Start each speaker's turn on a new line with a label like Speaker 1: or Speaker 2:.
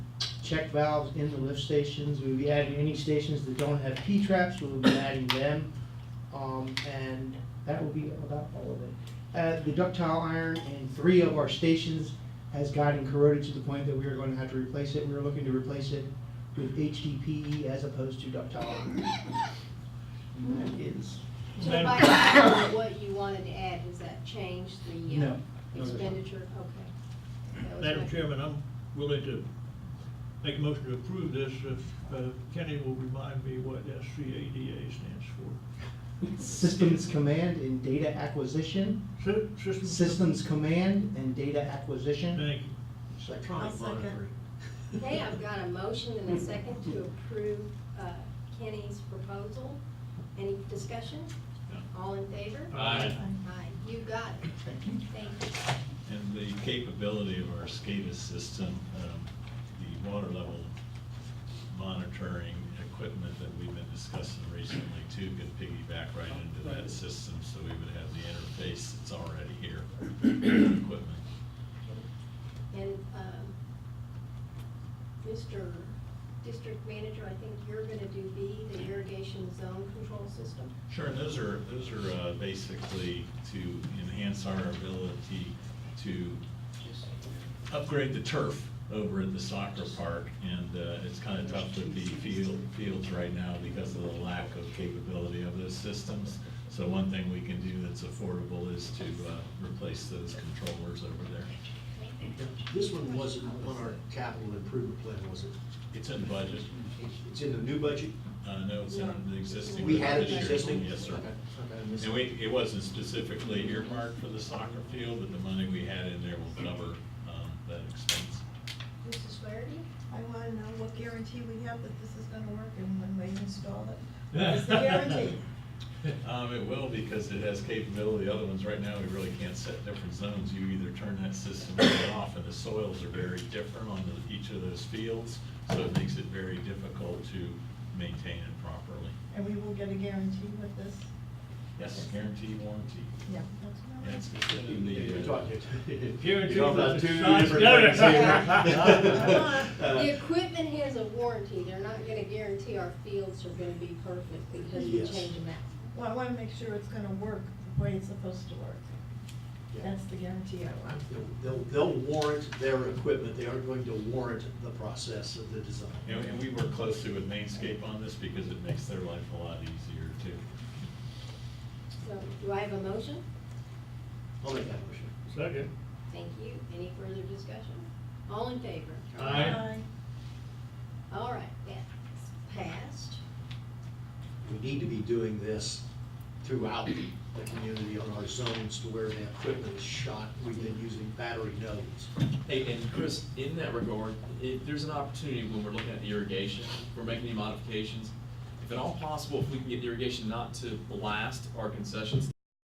Speaker 1: check valves in the lift stations. We'll be adding any stations that don't have P-traps, we'll be adding them. Um, and that will be about all of it. Uh, the ductile iron in three of our stations has gotten corroded to the point that we are going to have to replace it. We are looking to replace it with HDPE E as opposed to ductile iron. And that is,
Speaker 2: So
Speaker 3: Madam-
Speaker 2: by adding what you wanted to add, does that change the uh,
Speaker 1: no. no, there's not.
Speaker 2: expenditure? Okay. That was my-
Speaker 3: Madam Chairman, I'm willing to make a motion to approve this if uh, Kenny will remind me what SCADA stands for.
Speaker 1: Systems command and data acquisition,
Speaker 3: Sy- System.
Speaker 1: systems command and data acquisition.
Speaker 3: Thank you.
Speaker 1: Second.
Speaker 4: I'll
Speaker 5: Electronic
Speaker 4: second.
Speaker 5: monitoring.
Speaker 2: Okay, I've got a motion and a second to approve uh, Kenny's proposal. Any discussion? All in favor?
Speaker 3: Aye.
Speaker 2: Aye. You got it.
Speaker 1: Thank you.
Speaker 2: Thank you.
Speaker 6: And the capability of our SCADA system, um, the water level monitoring equipment that we've been discussing recently too, could piggyback right into that system, so we would have the interface that's already here, equipment.
Speaker 2: And um, Mr. District Manager, I think you're going to do B, the irrigation zone control system.
Speaker 6: Sure, and those are, those are uh, basically to enhance our ability to upgrade the turf over at the soccer park, and uh, it's kind of tough with the field, fields right now because of the lack of capability of those systems. So one thing we can do that's affordable is to uh, replace those controllers over there.
Speaker 5: This one wasn't on our capital improvement plan, was it?
Speaker 6: It's in budget,
Speaker 5: It's in the new budget?
Speaker 6: uh, no, it's in the existing.
Speaker 5: We had it
Speaker 6: this year's
Speaker 5: existing?
Speaker 6: one, Yes, sir.
Speaker 5: Okay, okay, I missed
Speaker 6: And
Speaker 5: it.
Speaker 6: we, it wasn't specifically earmarked for the soccer field, but the money we had in there will cover um, that expense.
Speaker 2: Mrs. Flaherty?
Speaker 7: I want to know what guarantee we have that this is going to work and when we install it. What's the guarantee?
Speaker 6: Um, it will because it has capability. The other ones right now, we really can't set different zones. You either turn that system on and off and the soils are very different on the, each of those fields. So it makes it very difficult to maintain it properly.
Speaker 7: And we will get a guarantee with this?
Speaker 6: Yes, guarantee warranty.
Speaker 7: Yeah. that's what I want.
Speaker 6: That's in the,
Speaker 5: You're
Speaker 6: uh,
Speaker 5: talking-
Speaker 3: You're
Speaker 5: You're talking about two
Speaker 3: talking-
Speaker 5: different things
Speaker 3: Yeah.
Speaker 5: here.
Speaker 2: The
Speaker 5: Uh,
Speaker 2: equipment has a warranty. They're not going to guarantee our fields are going to be perfect because we
Speaker 5: Yes.
Speaker 2: change them out.
Speaker 7: Well, I want to make sure it's going to work the way it's supposed to work.
Speaker 5: yeah.
Speaker 7: That's the guarantee I want.
Speaker 5: They'll- They'll, they'll warrant their equipment, they are going to warrant the process of the design.
Speaker 6: and and we work closely with Mainscape on this because it makes their life a lot easier too.
Speaker 2: So do I have a motion?
Speaker 5: I'll make that motion.
Speaker 3: Second.
Speaker 2: Thank you. Any further discussion? All in favor?
Speaker 3: Aye.
Speaker 2: All right, that's passed.
Speaker 5: We need to be doing this throughout the community on our zones to where the equipment is shot. We've been using battery nodes.
Speaker 8: Hey, and Chris, in that regard, if there's an opportunity when we're looking at irrigation, we're making any modifications, if at all possible, if we can get irrigation not to blast our concessions